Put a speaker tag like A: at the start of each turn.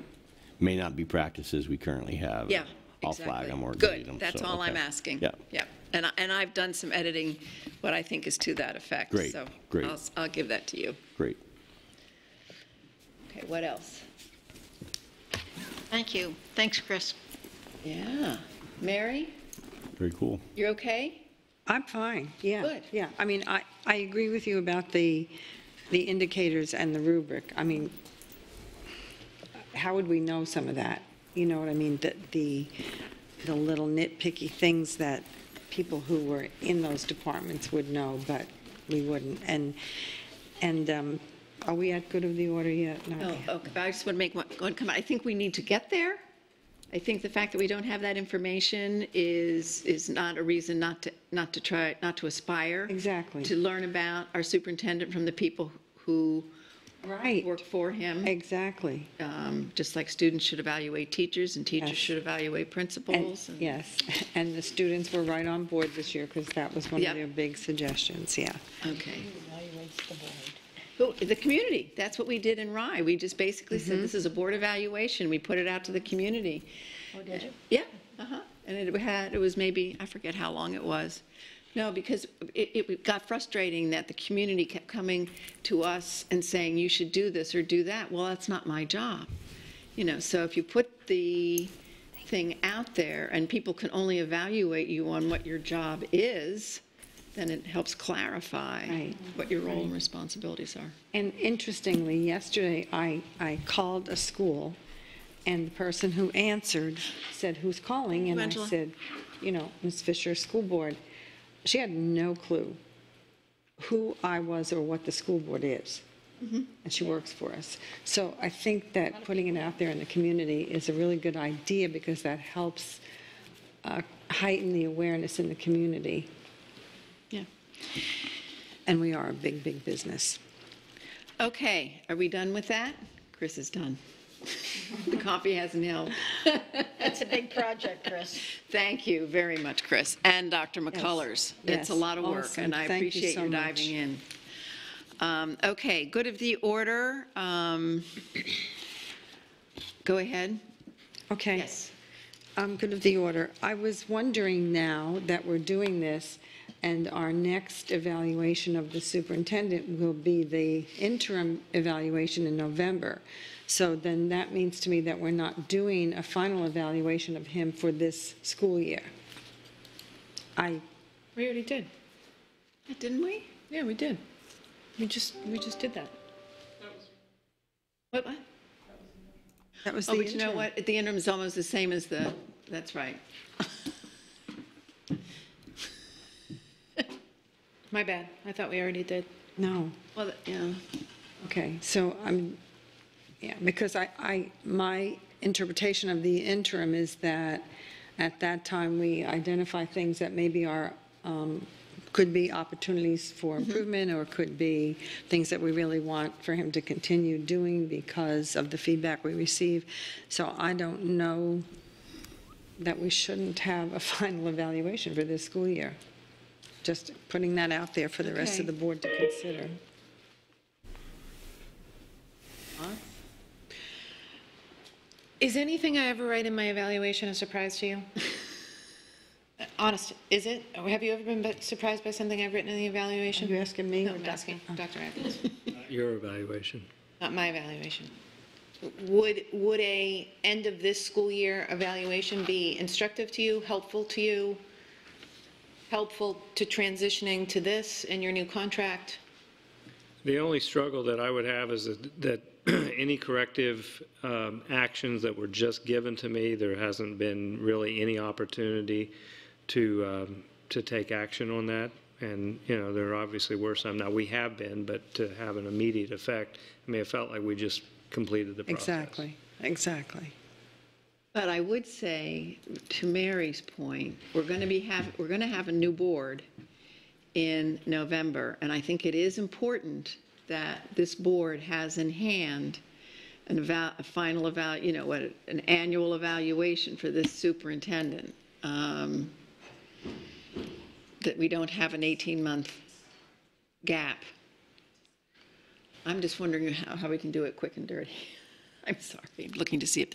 A: may not be practices we currently have.
B: Yeah,
A: I'll flag
B: exactly.
A: them or delete
B: Good,
A: them.
B: that's
A: so,
B: all I'm
A: okay.
B: asking.
A: Yeah.
B: Yeah, and, I- and I've done some editing, what I think is to that effect.
A: Great,
B: So
A: great.
B: I'll, s- I'll give that to you.
A: Great.
B: Okay, what else?
C: Thank you. Thanks, Chris.
B: Yeah. Mary,
A: Very cool.
B: you're okay?
D: I'm fine, yeah.
B: Good.
D: Yeah, I mean, I, I agree with you about the, the indicators and the rubric. I mean, how would we know some of that? You know what I mean? The, the, the little nitpicky things that people who were in those departments would know, but we wouldn't. And, and um, are we at good of the order yet? Not
B: Oh,
D: yet.
B: okay, but I just want to make one one comment. I think we need to get there. I think the fact that we don't have that information is, is not a reason not to, not to try, not to aspire.
D: Exactly.
B: To learn about our superintendent from the people who
D: Right,
B: work for him.
D: exactly.
B: um, just like students should evaluate teachers and teachers
D: Yes.
B: should evaluate principals.
D: And-
B: and-
D: Yes, and the students were right on board this year because that was one
B: Yep.
D: of their big suggestions, yeah.
B: Okay. Who- The community, that's what we did in Rye. We just basically said, this is a board evaluation. We put it out to the community. Oh, did you? Yeah, uh-huh. And it had, it was maybe, I forget how long it was. No, because it, it got frustrating that the community kept coming to us and saying, you should do this or do that. Well, that's not my job. You know, so if you put the thing out there and people can only evaluate you on what your job is, then it helps clarify
D: Right.
B: what your role and responsibilities are.
D: And interestingly, yesterday, I, I called a school, and the person who answered said, "Who's calling?" And I
B: Angela.
D: said, "You know, Ms. Fisher, school board." She had no clue who I was or what the school board is, and she works for us. So I think that putting it out there in the community is a really good idea because that helps uh, heighten the awareness in the community,
B: Yeah.
D: and we are a big, big business.
B: Okay, are we done with that? Chris is done. The coffee hasn't helped.
C: That's a big project, Chris.
B: Thank you very much, Chris, and Dr. McCullers. It's
D: yes,
B: a lot of work,
D: awesome.
B: and I
D: Thank you
B: appreciate
D: so
B: you
D: much.
B: diving in. Um, Okay, good of the order. um, Go ahead.
D: Okay.
B: Yes.
D: Um, good of the order. I was wondering now that we're doing this, and our next evaluation of the superintendent will be the interim evaluation in November. So then that means to me that we're not doing a final evaluation of him for this school year. I,
E: We already did.
B: Didn't we?
E: Yeah, we did. We just, we just did that.
B: What? what?
D: that was the
B: Oh,
D: interim.
B: but you know what? The interim is almost the same as the, that's right.
E: My bad. I thought we already did.
D: No.
B: Well, th- yeah.
D: Okay, so I'm, yeah, because I, I, my interpretation of the interim is that at that time, we identify things that maybe are, um, could be opportunities for
E: Mm-hmm.
D: improvement or could be things that we really want for him to continue doing because of the feedback we receive. So I don't know that we shouldn't have a final evaluation for this school year. Just putting that out there for the rest
B: Okay.
D: of the board to consider.
E: Is anything I ever write in my evaluation a surprise to you? Honest, is it? Or have you ever been bu- surprised by something I've written in the
D: Are you
E: evaluation?
D: asking me?
E: No,
D: or
E: I'm
D: Dr.
E: asking Dr. Evans,
F: Your evaluation.
E: not my evaluation. Would, would a end of this school year evaluation be instructive to you, helpful to you, helpful to transitioning to this and your new contract?
F: The only struggle that I would have is that- that any corrective um, actions that were just given to me, there hasn't been really any opportunity to, um, to take action on that. And, you know, there obviously were some. Now, we have been, but to have an immediate effect, I mean, it felt like we just completed the process.
D: Exactly, exactly.
B: But I would say, to Mary's point, we're going to be have, we're going to have a new board in November, and I think it is important that this board has in hand an eval, a final eval, you know, what, an annual evaluation for this superintendent. um, That we don't have an 18-month gap. I'm just wondering how, how we can do it quick and dirty. I'm sorry, I'm looking to see if